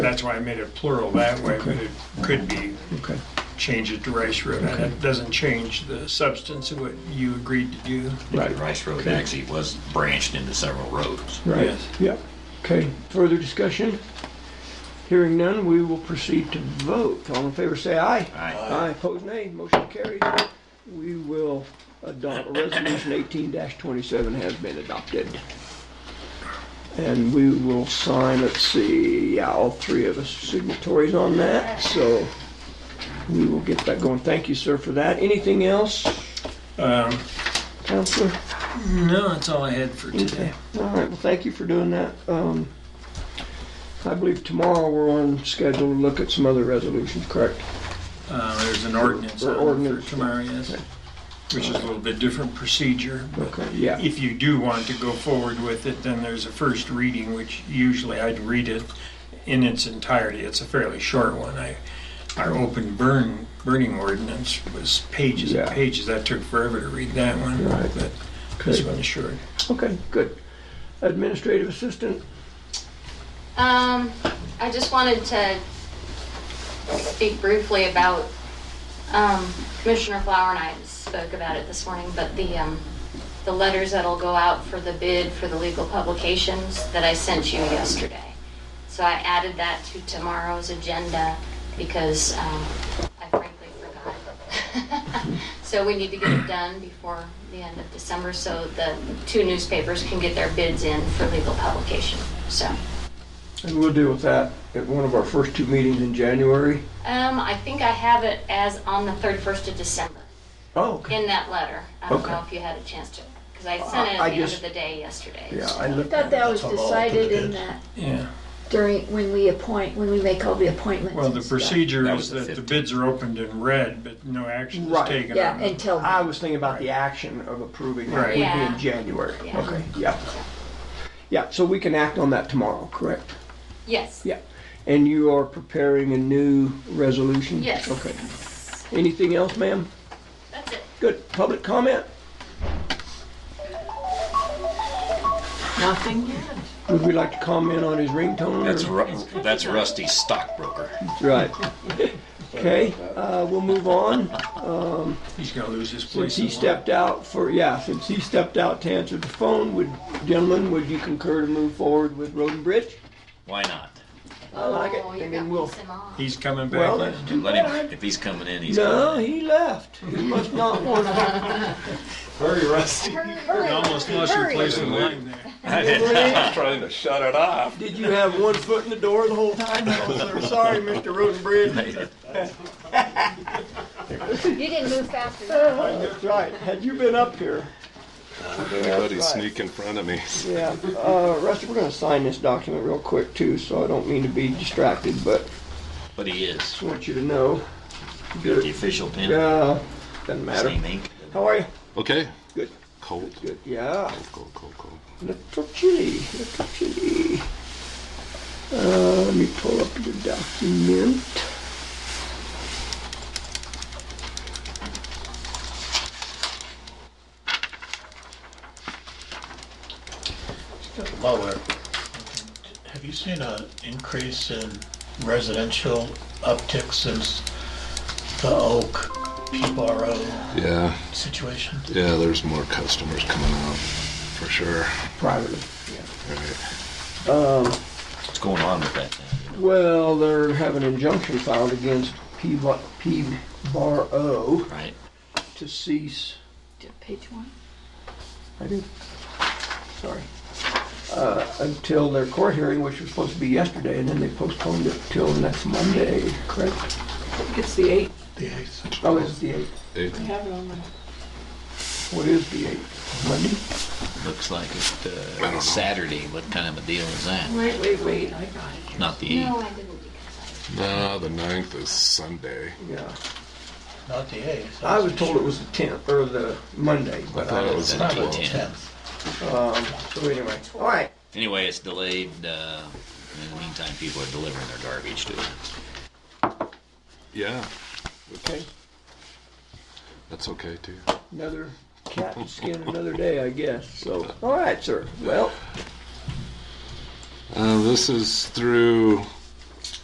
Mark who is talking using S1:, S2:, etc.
S1: That's why I made it plural that way, but it could be
S2: Okay.
S1: changed to Rice Road. And it doesn't change the substance of what you agreed to do.
S2: Right.
S3: Rice Road
S2: Okay.
S3: actually was branched into several roads.
S2: Right.
S1: Yes.
S2: Yep. Okay. Further discussion? Hearing none, we will proceed to vote. All in favor, say aye.
S3: Aye.
S2: Aye, opposed, nay. Motion carries. We will adopt, Resolution 18-27 has been adopted. And we will sign, let's see, yeah, all three of us signatories on that, so we will get that going. Thank you, sir, for that. Anything else,
S1: Um,
S2: Counselor?
S1: No, that's all I had for today.
S2: Okay, all right, well, thank you for doing that. Um, I believe tomorrow we're on schedule to look at some other resolutions, correct?
S1: Uh, There's an ordinance
S2: Or
S1: on for
S2: ordinance.
S1: tomorrow, yes, which is a little bit different procedure. but
S2: Okay, yeah,
S1: If you do want to go forward with it, then there's a first reading, which usually I'd read it in its entirety. It's a fairly short one. I, our open burn, burning ordinance was pages and
S2: Yeah.
S1: pages. That took forever to read that one,
S2: Right.
S1: but this
S2: Okay.
S1: one is short.
S2: okay, good. Administrative assistant,
S4: Um, I just wanted to speak briefly about, um, Commissioner Flower and I spoke about it this morning, but the, um, the letters that'll go out for the bid for the legal publications that I sent you yesterday. So I added that to tomorrow's agenda because, um, I frankly forgot. So we need to get it done before the end of December so the two newspapers can get their bids in for legal publication, so.
S2: and we'll deal with that at one of our first two meetings in January.
S4: Um, I think I have it as on the 31st of December,
S2: Oh, okay.
S4: in that letter. I don't know
S2: Okay. Uh,
S4: if you had a chance to, because I sent it
S2: I- I
S4: at the end
S2: just-
S4: of the day yesterday.
S2: Yeah, I looked
S5: Thought
S2: at it.
S5: that was decided in that
S1: Yeah.
S5: during, when we appoint, when we make all the appointments.
S1: Well, the
S5: and stuff.
S1: procedure
S3: That
S1: is
S3: was the
S1: that the
S3: 15th.
S1: bids are opened in red, but no action is
S2: Right.
S1: taken
S5: Yeah,
S1: on them.
S5: until,
S2: I was thinking about the action of approving that would
S1: Right.
S2: be
S4: Yeah.
S2: in January.
S4: Yeah.
S2: Okay, yeah. Yeah, so we can act on that tomorrow, correct?
S4: Yes.
S2: Yeah. And you are preparing a new resolution?
S4: Yes.
S2: Okay. Anything else, ma'am?
S4: That's it.
S2: Good. Public comment?
S6: Nothing yet.
S2: Would we like to comment on his ringtone? or-
S3: That's Ru- that's Rusty Stockbroker.
S2: Right. Okay, uh, we'll move on.
S1: He's gonna lose his place.
S2: Since he
S1: in line.
S2: stepped out for, yeah, since he stepped out to answer the phone, would, gentlemen, would you concur to move forward with Road and Bridge?
S3: Why not?
S2: I like it.
S4: Oh,
S2: And
S4: you're
S2: then
S4: gonna
S2: we'll,
S4: piss him off.
S1: He's coming back.
S2: well,
S1: in.
S2: that's too
S3: Let him.
S2: bad.
S3: If he's coming in, he's
S2: No,
S3: coming. in.
S2: he left. He must not want to.
S7: Very rusty.
S1: You Almost lost your place in line there.
S3: I didn't-
S7: Trying to shut it off.
S2: Did you have one foot in the door the whole time? Oh, sir, Sorry, Mr. Road and Bridge.
S5: you didn't move fast enough.
S2: That's right. Had you been up here?
S7: Anybody sneak in front of me.
S2: Yeah. Uh, Rusty, we're gonna sign this document real quick too, so I don't mean to be distracted, but
S3: But he is.
S2: just want you to know.
S3: Got the official pen.
S2: Yeah, doesn't matter.
S3: Same ink.
S2: How are you?
S7: Okay.
S2: Good.
S7: Cold.
S2: Good. Yeah.
S7: Cold, cold, cold.
S2: Little chilly. Little chilly. Uh, let me pull up the document.
S8: lower. Have you seen an increase in residential uptick since the Oak PRO
S7: Yeah,
S8: situation?
S7: yeah, there's more customers coming out, for sure.
S2: Privately.
S7: Right.
S3: What's going on with that thing?
S2: Well, they're having an injunction filed against P Bar O
S3: Right?
S2: to cease
S6: Page one.
S2: I do. Sorry. Uh, Until their court hearing, which was supposed to be yesterday, and then they postponed it till next Monday, correct?
S6: It's the eight.
S8: The eighth.
S2: Oh, it's the 8th.
S6: I
S7: Eighth.
S6: have it on my.
S2: What is the 8th? Monday?
S3: Looks like it,
S7: know.
S3: uh, Saturday. What kind of a deal is that?
S6: Wait, wait, wait, I got it.
S3: Not the
S4: No,
S3: eighth.
S4: I didn't because
S7: No, the ninth is Sunday.
S2: Yeah.
S8: Not the eighth.
S2: I was told it was the 10th, or the Monday,
S7: I
S2: but,
S7: thought it was the
S3: Probably
S7: twelfth.
S3: ten.
S8: Tenth.
S2: um, so anyway. All right.
S3: Anyway, it's delayed. Uh, in the meantime, people are delivering their garbage to us.
S7: Yeah,
S2: Okay.
S7: that's okay too.
S2: Another cat to skin another day, I guess. So, all right, sir. Well,
S7: Uh, this is through